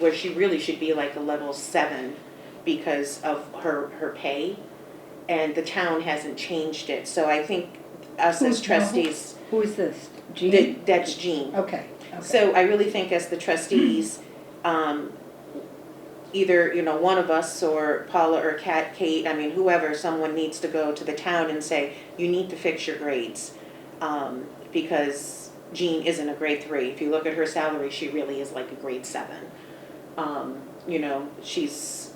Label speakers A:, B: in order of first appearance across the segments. A: where she really should be like a level seven because of her, her pay. And the town hasn't changed it, so I think us
B: Who's-
A: as
B: who-
A: trustees,
B: Who is this? Jean?
A: that, that's Jean.
B: Okay, okay.
A: So I really think as the trustees, um, either, you know, one of us or Paula or Kat, Kate, I mean, whoever, someone needs to go to the town and say, you need to fix your grades. Um, because Jean isn't a grade three. If you look at her salary, she really is like a grade seven. Um, you know, she's,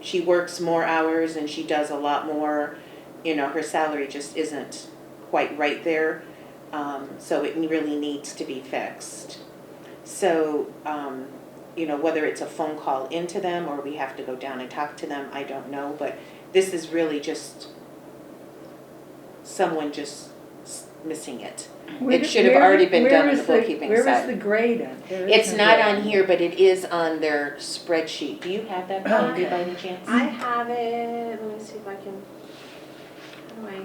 A: she works more hours and she does a lot more. You know, her salary just isn't quite right there. Um, so it really needs to be fixed. So, um, you know, whether it's a phone call into them or we have to go down and talk to them, I don't know, but this is really just someone just s- missing it.
B: Where-
A: should have
B: where-
A: already been
B: where
A: done on
B: is
A: the bookkeeping
B: Where is
A: side.
B: the grade on? There is
A: It's
B: no
A: not
B: grade.
A: on here, but it is on their spreadsheet. Do you have that copy by any chance?
C: I have it, let me see if I can, how do I?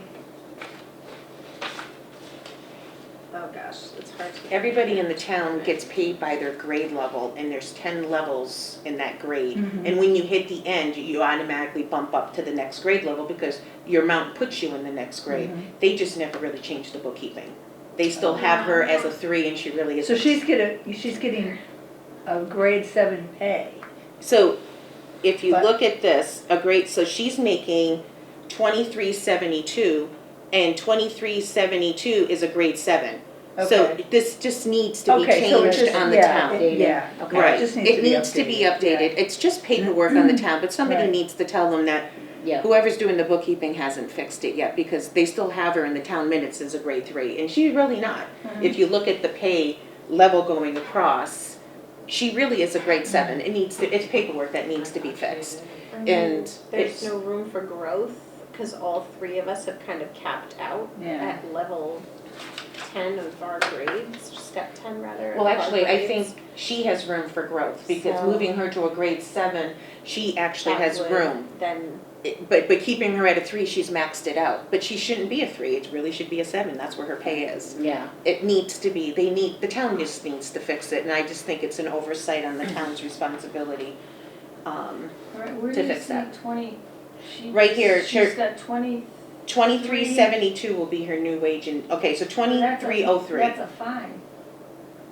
C: Oh gosh, it's hard to.
A: Everybody in the town gets paid by their grade level, and there's ten levels in that grade.
B: Mhm.
A: And when you hit the end, you automatically bump up to the next grade level because your amount puts you in the next grade.
B: Mm-hmm.
A: They just never really changed the bookkeeping. They still have her as a three, and she really is.
B: So she's getting, she's getting a grade seven pay.
A: So, if you
B: But-
A: look at this, a great, so she's making twenty-three seventy-two, and twenty-three seventy-two is a grade seven. So
B: Okay.
A: this just needs to be
B: Okay, so it's
A: changed
B: just-
A: on the
B: yeah,
A: town.
B: it- Yeah, okay.
A: Right,
B: just
A: it needs to be updated, it's just paperwork on the town, but somebody
B: Right.
A: needs to tell them that
D: Yeah,
A: whoever's doing the bookkeeping hasn't fixed it yet, because they still have her in the town minutes as a grade three, and she's really not.
C: Mm-hmm.
A: If you look at the pay level going across, she really is a grade seven, it needs to, it's paperwork that needs to be fixed.
C: I mean,
A: and it's-
C: Mm-hmm. There's no room for growth, cause all three of us have kind of capped out
B: Yeah.
C: at level ten of our grades, step ten rather.
A: Well,
C: of our
A: actually, I
C: grades.
A: think she has room for growth, because
C: So-
A: moving her to a grade seven, she actually
C: That
A: has
C: would
A: room.
C: Then,
A: It- But, but keeping her at a three, she's maxed it out, but she shouldn't be a three, it really should be a seven, that's where her pay is.
D: yeah.
A: it needs to be, they need, the town just needs to fix it, and I just think it's an oversight on the
E: Mm.
A: town's responsibility. Um,
E: Right, where
A: to
E: do you
A: fix
E: see
A: that.
E: twenty? she-
A: Right here, sure.
E: She's got twenty.
A: twenty-three seventy-two will be her new wage and, okay, so
E: that's a-
A: twenty-three oh three,
E: That's a fine.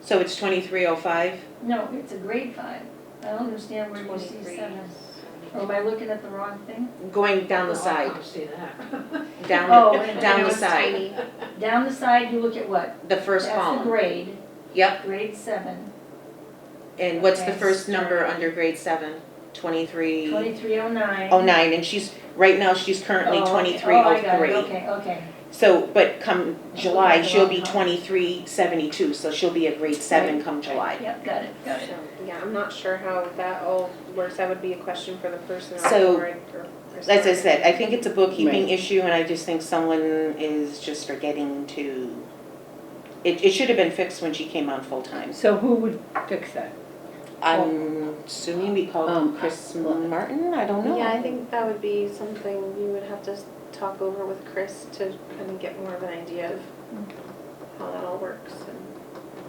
A: so it's twenty-three oh five?
E: No, it's a grade five. I don't understand where you see
C: twenty-three.
E: seven. Or am I looking at the wrong thing?
A: Going down the side,
F: see that.
A: down,
E: Oh,
A: the-
E: and
A: down
C: It
A: the
C: was
A: side,
C: tiny.
E: Down the side, you look at what?
A: the first
E: That's the
A: column.
E: grade,
A: Yep,
E: grade seven,
A: and what's the
E: Okay.
A: first number under grade seven? Twenty-three
E: twenty-three oh nine.
A: oh nine, and she's, right now, she's currently twenty-three
E: Oh,
A: oh
E: I got it,
A: three.
E: okay, okay.
A: So, but come July,
E: Okay,
A: she'll be
E: well, huh.
A: twenty-three seventy-two, so she'll be a grade seven come July.
E: Yep, got it, got it.
C: So, yeah, I'm not sure how that all works, that would be a question for the person.
A: So, As I said, I think it's a bookkeeping issue, and I just think someone is just forgetting to, it, it should have been fixed when she came on full-time.
B: So who would fix that?
A: I'm assuming we called
D: Um,
A: Chris
D: well-
A: Martin, I don't know.
C: Yeah, I think that would be something you would have to talk over with Chris to kind of get more of an idea of how that all works and.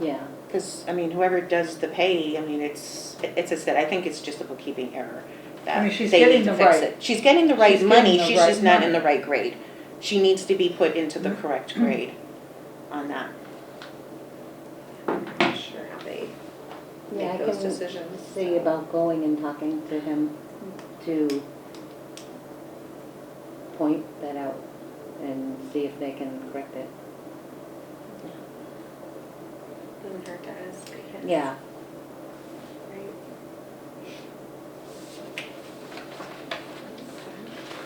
D: Yeah,
A: Because, I mean, whoever does the pay, I mean, it's, it's, as I said, I think it's just a bookkeeping error. that
B: I mean, she's
A: they
B: getting
A: need to
B: the
A: fix
B: right-
A: it. She's getting the right
B: she's
A: money,
B: getting the
A: she's
B: right
A: just not in
B: money. Mm-hmm.
A: the right grade. She needs to be put into the correct grade on that.
C: I'm not sure how they
D: yeah,
C: make
D: I
C: those
D: can
C: decisions.
D: see about going and talking to him to point that out and see if they can correct it.
C: Doesn't hurt to ask, I guess.
D: Yeah,
C: Right.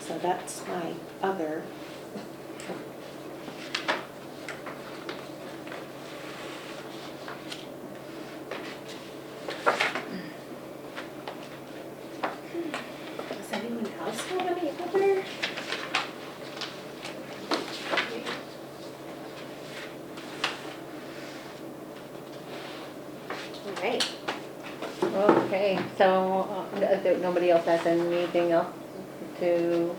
A: So that's my other.
C: Does anyone else have any other? All right,
D: okay, so, uh, n- uh, nobody else has anything else to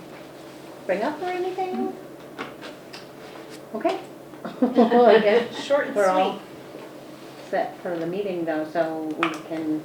D: bring up or anything? Okay. Well, I guess
C: short and
D: We're all
C: sweet.
D: set for the meeting though, so we can